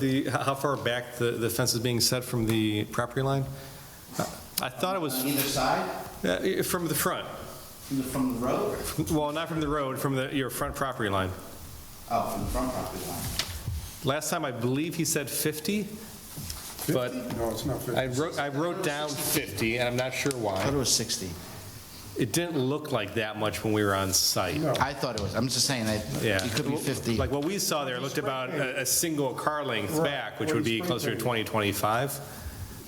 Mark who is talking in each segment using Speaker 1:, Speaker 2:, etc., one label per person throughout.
Speaker 1: The, how far back the, the fence is being set from the property line? I thought it was
Speaker 2: On either side,
Speaker 1: uh, from the front,
Speaker 2: from the, from the road, or-
Speaker 1: well, not from the road, from the, your front property line.
Speaker 2: oh, from the front property line.
Speaker 1: Last time, I believe he said 50, but
Speaker 3: No, it's not
Speaker 1: I
Speaker 3: 50.
Speaker 1: wrote, I wrote down 50, and I'm not sure
Speaker 2: I thought
Speaker 1: why.
Speaker 2: it was 60.
Speaker 1: It didn't look like that much when we were on site,
Speaker 3: No.
Speaker 2: I thought it was, I'm just saying that
Speaker 1: yeah.
Speaker 2: it could be 50.
Speaker 1: Like, what we saw there looked about a, a single car length back, which would be closer to 20, 25.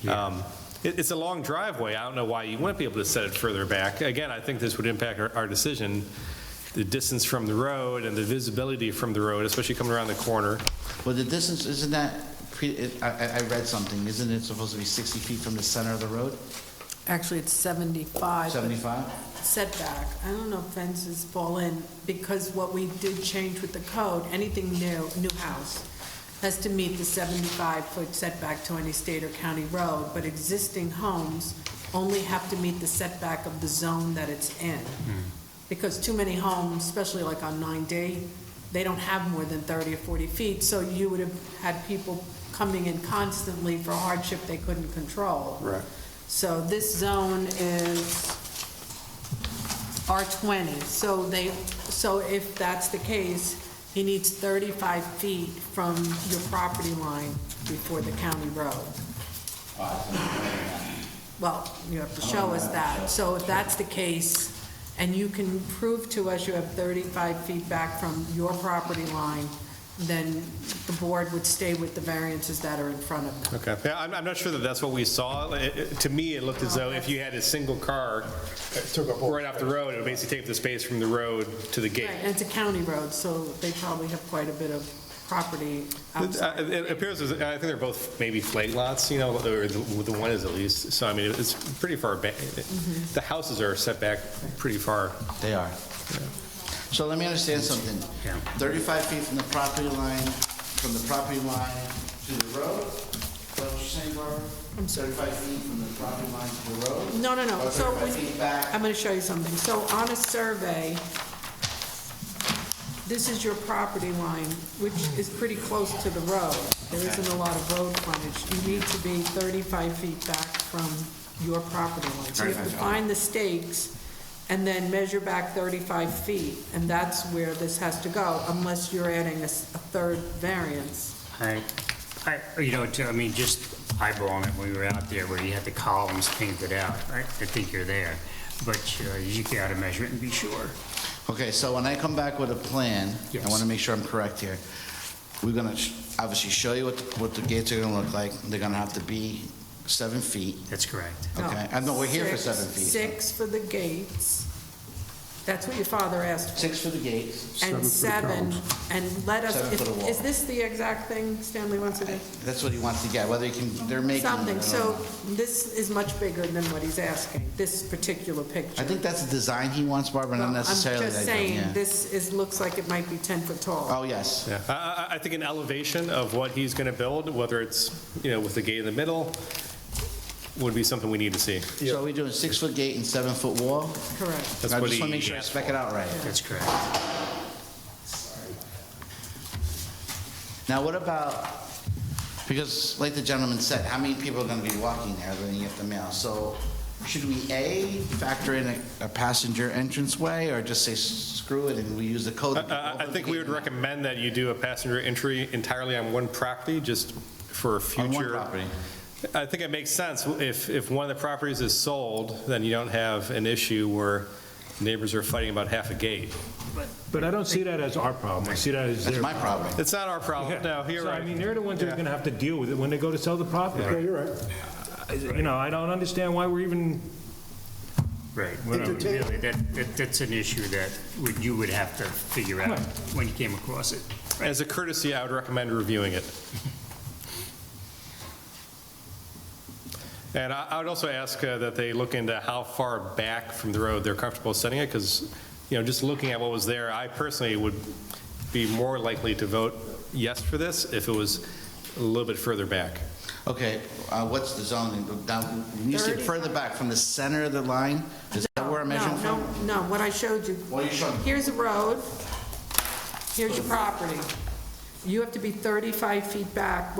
Speaker 1: Um, It, it's a long driveway, I don't know why you wouldn't be able to set it further back. Again, I think this would impact our, our decision, the distance from the road and the visibility from the road, especially coming around the corner.
Speaker 2: Well, the distance, isn't that, pre- it- I, I- I read something, isn't it supposed to be 60 feet from the center of the road?
Speaker 4: Actually, it's 75. but
Speaker 2: 75?
Speaker 4: Setback. I don't know if fences fall in, because what we did change with the code, anything new, new house, has to meet the 75-foot setback to any state or county road, but existing homes only have to meet the setback of the zone that it's in. Because too many homes, especially like on 9D, they don't have more than 30 or 40 feet, so you would have had people coming in constantly for hardship they couldn't control.
Speaker 3: Right.
Speaker 4: So this zone is R20, so they, so if that's the case, he needs 35 feet from your property line before the county road. Well, you have to show us that. So if that's the case, and you can prove to us you have 35 feet back from your property line, then the board would stay with the variances that are in front of them.
Speaker 1: Okay. Yeah, I'm, I'm not sure that that's what we saw. It- it- To me, it looked as though if you had a single car
Speaker 3: It took up all-
Speaker 1: right off the road, it would basically take the space from the road to the gate.
Speaker 4: Right, and it's a county road, so they probably have quite a bit of property outside.
Speaker 1: Uh, It appears, as- I think they're both maybe flag lots, you know, or the the one is at least, so I mean, it's pretty far back. The houses are set back pretty far.
Speaker 2: They are. So let me understand something. 35 feet from the property line, from the property line to the road? Is that what you're saying, Barbara? 35 feet from the property line to the road?
Speaker 4: No, no, no,
Speaker 2: Or
Speaker 4: so
Speaker 2: 35 feet back?
Speaker 4: when, I'm gonna show you something. So on a survey, this is your property line, which is pretty close to the road. There isn't a lot of road frontage. You need to be 35 feet back from your property line. So you have
Speaker 2: 35
Speaker 4: to
Speaker 2: feet.
Speaker 4: find the stakes and then measure back 35 feet, and that's where this has to go, unless you're adding a s- a third variance.
Speaker 5: I, I, oh, you know, I mean, just eyeballing it when we were out there where you had the columns painted out, I, I think you're there. But uh, you gotta measure it and be sure.
Speaker 2: Okay, so when I come back with a plan, I want
Speaker 5: Yes.
Speaker 2: to make sure I'm correct here. We're going to obviously show you what, what the gates are going to look like. They're going to have to be seven feet,
Speaker 5: That's correct.
Speaker 4: No,
Speaker 2: okay? I know we're here for
Speaker 4: six-
Speaker 2: seven feet.
Speaker 4: Six for the gates. That's what your father asked for.
Speaker 2: Six for the gates.
Speaker 4: And
Speaker 3: Seven
Speaker 4: seven,
Speaker 3: for
Speaker 4: and let us,
Speaker 2: Seven
Speaker 4: if-
Speaker 2: for the wall.
Speaker 4: is this the exact thing Stanley wants to do?
Speaker 2: That's what he wants to get, whether he can, they're making.
Speaker 4: Something, so this is much bigger than what he's asking, this particular
Speaker 2: I
Speaker 4: picture.
Speaker 2: think that's the design he wants, Barbara, not
Speaker 4: Well,
Speaker 2: necessarily
Speaker 4: I'm just
Speaker 2: that, yeah.
Speaker 4: saying, this is, looks like it might be 10 foot tall.
Speaker 2: Oh, yes.
Speaker 1: Yeah. I, I- I think an elevation of what he's going to build, whether it's, you know, with the gate in the middle, would be something we need to see.
Speaker 2: So we're doing six-foot gate and seven-foot wall?
Speaker 4: Correct.
Speaker 1: That's
Speaker 2: I
Speaker 1: what
Speaker 2: just want to
Speaker 1: he
Speaker 2: make sure I
Speaker 1: asked
Speaker 2: spec it out right.
Speaker 5: That's correct.
Speaker 2: Now, what about, because like the gentleman said, how many people are gonna be walking there when you get the mail? So should we, A, factor in a- a passenger entranceway, or just say screw it and we use the code?
Speaker 1: I- I, I think we would recommend that you do a passenger entry entirely on one property, just for future.
Speaker 2: On one property.
Speaker 1: I think it makes sense. If, if one of the properties is sold, then you don't have an issue where neighbors are fighting about half a gate.
Speaker 6: But I don't see that as our problem, I see that as
Speaker 2: That's
Speaker 6: their.
Speaker 2: my problem.
Speaker 1: It's not our problem. No,
Speaker 6: Yeah.
Speaker 1: you're
Speaker 6: So,
Speaker 1: right.
Speaker 6: I mean, they're the ones that are gonna have to deal with it when they go to sell the
Speaker 3: Yeah,
Speaker 6: property.
Speaker 3: you're right.
Speaker 6: You know, I don't understand why we're even,
Speaker 5: Right. Well, no, Really, that, that, that's an issue that would, you would have to figure out when you came across it.
Speaker 1: As a courtesy, I would recommend reviewing it. And I I would also ask uh, that they look into how far back from the road they're comfortable setting it, because, you know, just looking at what was there, I personally would be more likely to vote yes for this if it was a little bit further back.
Speaker 2: Okay, uh, what's the zoning? Now, when you said
Speaker 4: 30.
Speaker 2: further back, from the center of the line, is that where I'm measuring
Speaker 4: No,
Speaker 2: from?
Speaker 4: no, no, what I showed you.
Speaker 2: What are you showing?
Speaker 4: Here's a road, here's your property. You have to be 35 feet back